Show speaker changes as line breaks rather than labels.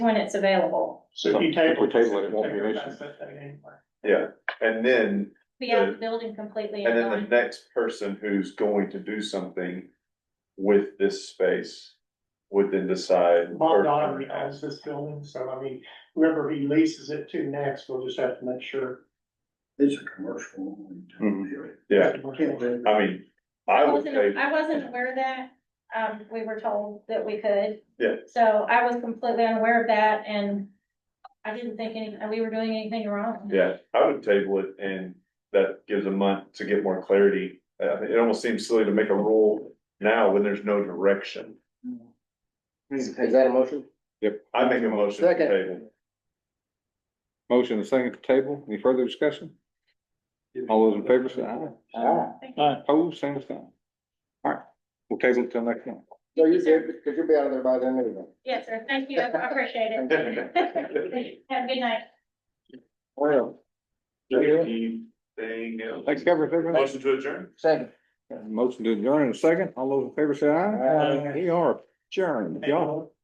when it's available.
So if you
If we
table.
table it, it won't be an issue.
Yeah, and then,
Be out of the building completely.
and then the
gone.
next person who's going to do something with this space would then decide.
Bob
or-
Dodgery owns this building, so I mean, whoever he leases it to next, we'll just have to make sure.
It's a commercial. one,
Mhm.
period.
Yeah,
I can't believe
I mean, I would
wasn't-
table,
I wasn't aware of that, um, we were told that we could.
Yeah.
So I was completely unaware of that and I didn't think any, we were doing anything wrong.
yeah, I would table it and that gives a month to get more clarity. Uh, it almost seems silly to make a rule now when there's no direction.
Is that a motion?
I make a motion to
Second.
table.
Motion and second to table. Any further discussion? All those in favor say aye.
Ah,
Thank you.
Aye. Pose, same sign. All right, we'll table it till next month.
So you're good, because you'll be out of there by then anyway.
Yes, sir, thank you, I appreciate it. Have a good night.
Well,
Anything else?
thanks, covers everything.
Motion to adjourn?
Second.
Motion to adjourn in a second. All those in favor say aye.
Aye.
We are adjourned. Y'all.